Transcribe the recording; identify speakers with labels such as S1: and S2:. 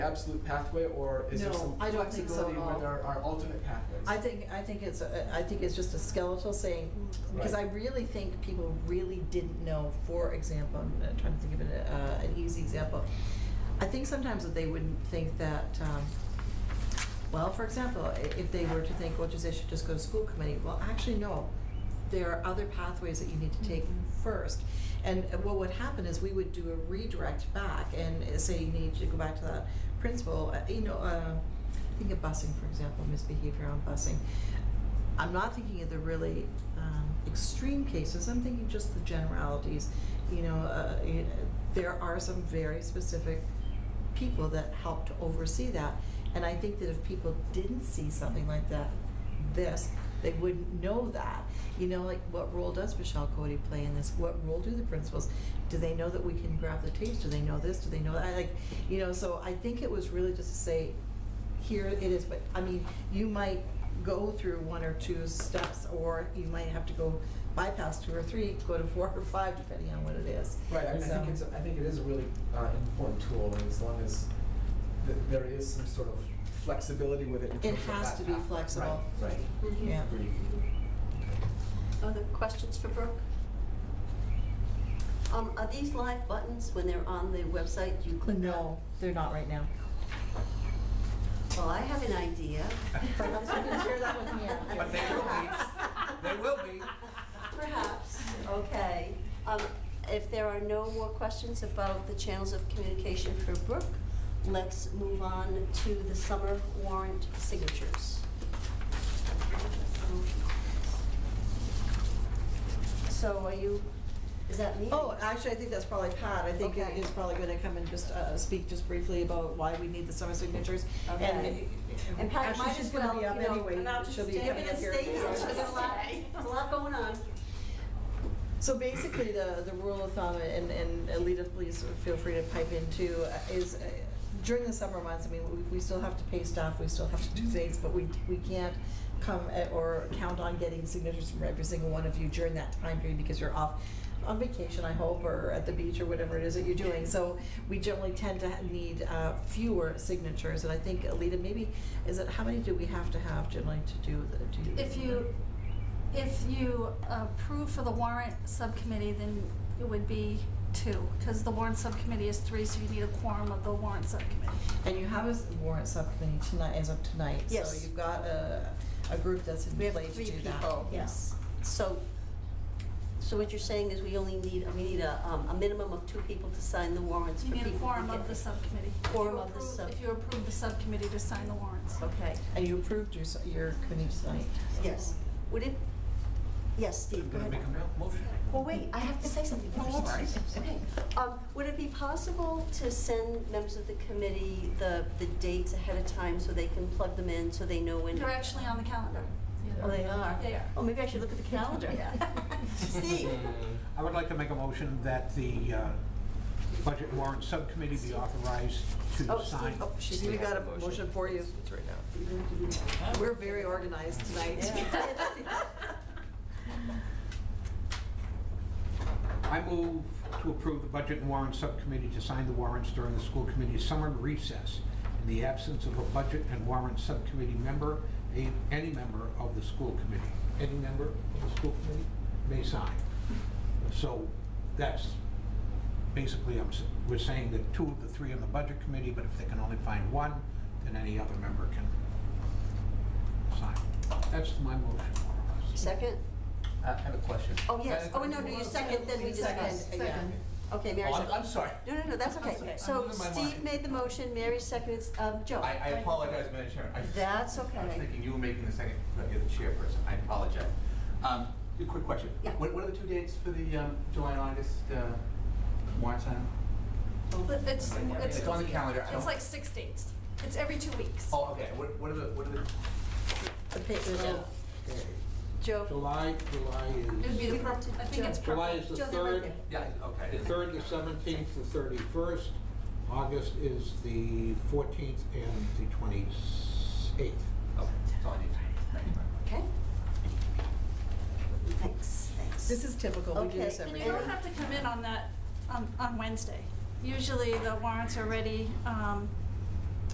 S1: absolute pathway, or is there
S2: No,
S1: some
S2: I don't think so
S1: flexibility
S2: at
S1: where
S2: all.
S1: there are alternate pathways?
S2: I think, I think it's, a- I think it's just a skeletal saying, because I
S1: Right.
S2: really think people really didn't know, for example, I'm uh, trying to think of an, uh, an easy example. I think sometimes that they wouldn't think that, um, well, for example, i- if they were to think, well, geez, they should just go to school committee, well, actually, no. There are other pathways that you need to take
S3: Mhm.
S2: first. And uh, what would happen is we would do a redirect back and uh, say you need to go back to that principal, uh, you know, uh, think of busing, for example, misbehavior on busing. I'm not thinking of the really um, extreme cases. I'm thinking just the generalities. You know, uh, you- there are some very specific people that help to oversee that. And I think that if people didn't see something like that, this, they wouldn't know that. You know, like what role does Michelle Cody play in this? What role do the principals? Do they know that we can grab the tapes? Do they know this? Do they know that? I like, you know, so I think it was really just to say, here it is, but, I mean, you might go through one or two steps, or you might have to go bypass two or three, go to four or five, depending on what it is.
S1: Right, I, I
S2: So-
S1: think it's, a- I think it is a really uh, important tool, and as long as th- there is some sort of flexibility with it. in
S2: It
S1: terms of
S2: has
S1: that
S2: to be
S1: path.
S2: flexible.
S1: Right, right.
S4: Mm-hmm.
S3: Mhm.
S2: Yeah.
S1: Agree.
S3: Other questions for Brooke? Um, are these live buttons when they're on the website, do you click on?
S2: No, they're not right now.
S3: Well, I have an idea.
S2: Perhaps we can share that with Mia.
S1: But they will be. They will be.
S3: Perhaps, okay. Um, if there are no more questions about the channels of communication for Brooke, let's move on to the summer warrant signatures. So are you, is that me?
S2: Oh, actually, I think that's probably Pat. I think
S3: Okay.
S2: it's probably gonna come and just uh, speak just briefly about why we need the summer signatures. And-
S3: Okay. And Pat
S2: Actually,
S3: might
S2: she's
S3: as
S2: gonna
S3: well,
S2: be
S3: you
S2: up
S3: know,
S2: anyway.
S3: and I'll just
S2: She'll be
S3: stay
S2: coming up
S3: and
S2: here.
S3: stay here. There's a lot, there's a lot going on.
S2: So basically, the, the rule of thumb, and, and Alita, please feel free to pipe in too, uh, is uh, during the summer months, I mean, we, we still have to pay staff, we still have to do things, but we, we can't come at- or count on getting signatures from every single one of you during that time period because you're off on vacation, I hope, or at the beach or whatever it is that you're doing. So we generally tend to ha- need uh, fewer signatures, and I think, Alita, maybe, is it, how many do we have to have generally to do, the- to?
S4: If you, if you approve for the warrant subcommittee, then it would be two, because the warrant subcommittee is three, so you need a quorum of the warrant subcommittee.
S2: And you have a s- warrant subcommittee tonight, as of tonight.
S3: Yes.
S2: So you've got a, a group that's in
S3: We have
S2: place to
S3: three
S2: do that.
S3: people, yes. So, so what you're saying is we only need, we need a, um, a minimum of two people to sign the warrants
S4: You
S3: for
S4: need
S3: people.
S4: a
S3: to
S4: quorum of
S3: get
S4: the
S3: it.
S4: subcommittee. If you
S3: Quorum of the
S4: approve-
S3: sub-
S4: If you approve the subcommittee to sign the warrants.
S3: Okay,
S2: And you approved your, s- your committee tonight.
S3: yes. Would it, yes, Steve, go
S1: Gonna
S3: ahead.
S1: make a mo- motion?
S3: Well, wait, I have to say something first.
S2: Oh, all right.
S3: Okay. Um, would it be possible to send members of the committee the, the dates ahead of time so they can plug them in, so they know when?
S4: They're actually on the calendar.
S3: Oh, they are?
S4: They are.
S3: Oh, maybe I should look at the calendar. Steve?
S5: I would like to make a motion that the uh, Budget Warrant Subcommittee be authorized to
S3: Oh,
S5: sign.
S3: Steve,
S2: Oh, she's, we got a motion for you.
S6: It's right now.
S2: We're very organized tonight.
S5: I move to approve the Budget and Warrant Subcommittee to sign the warrants during the school committee's summer recess in the absence of a Budget and Warrant Subcommittee member, a- any member of the school committee. Any member of the school committee may sign. So that's, basically, I'm, s- we're saying that two of the three on the Budget Committee, but if they can only find one, then any other member can sign. That's my motion, more or less.
S3: Second?
S6: I have a question.
S3: Oh, yes. Oh, no, no, you second, then we discuss.
S2: Second, yeah.
S3: Okay, Mary
S6: Oh, I'm,
S3: second.
S6: I'm sorry.
S3: No, no, no, that's
S6: I'm
S3: okay.
S6: sorry.
S3: So
S6: I'm losing my
S3: Steve
S6: mind.
S3: made the motion, Mary seconds, um, Joe.
S6: I, I apologize, Madam Chair. I-
S3: That's
S6: I was
S3: okay.
S6: thinking you were making the second, but you're the chairperson. I apologize. Um, a quick question.
S3: Yeah.
S6: What, what are the two dates for the, um, July and August, uh, warrant signing?
S4: But It's, it's.
S6: It's on the calendar. I
S4: It's
S6: don't-
S4: like six dates. It's every two weeks.
S6: Oh, okay. What, what are the, what are the?
S2: The pa- the-
S3: Joe.
S5: July, July
S4: It would be the purple, I think it's purple.
S5: July is the
S4: Joe, they're right
S5: third.
S4: there.
S6: Yeah, okay.
S5: The third, the seventeenth, the thirty-first. August is the fourteenth and the twenty-eighth.
S6: Okay, Oh, that's all I need. Thank you very much.
S3: Okay? Thanks, thanks.
S2: This is typical, we do this
S3: Okay.
S2: every
S4: And you
S2: year.
S4: don't have to come in on that, on, on Wednesday. Usually the warrants are ready, um,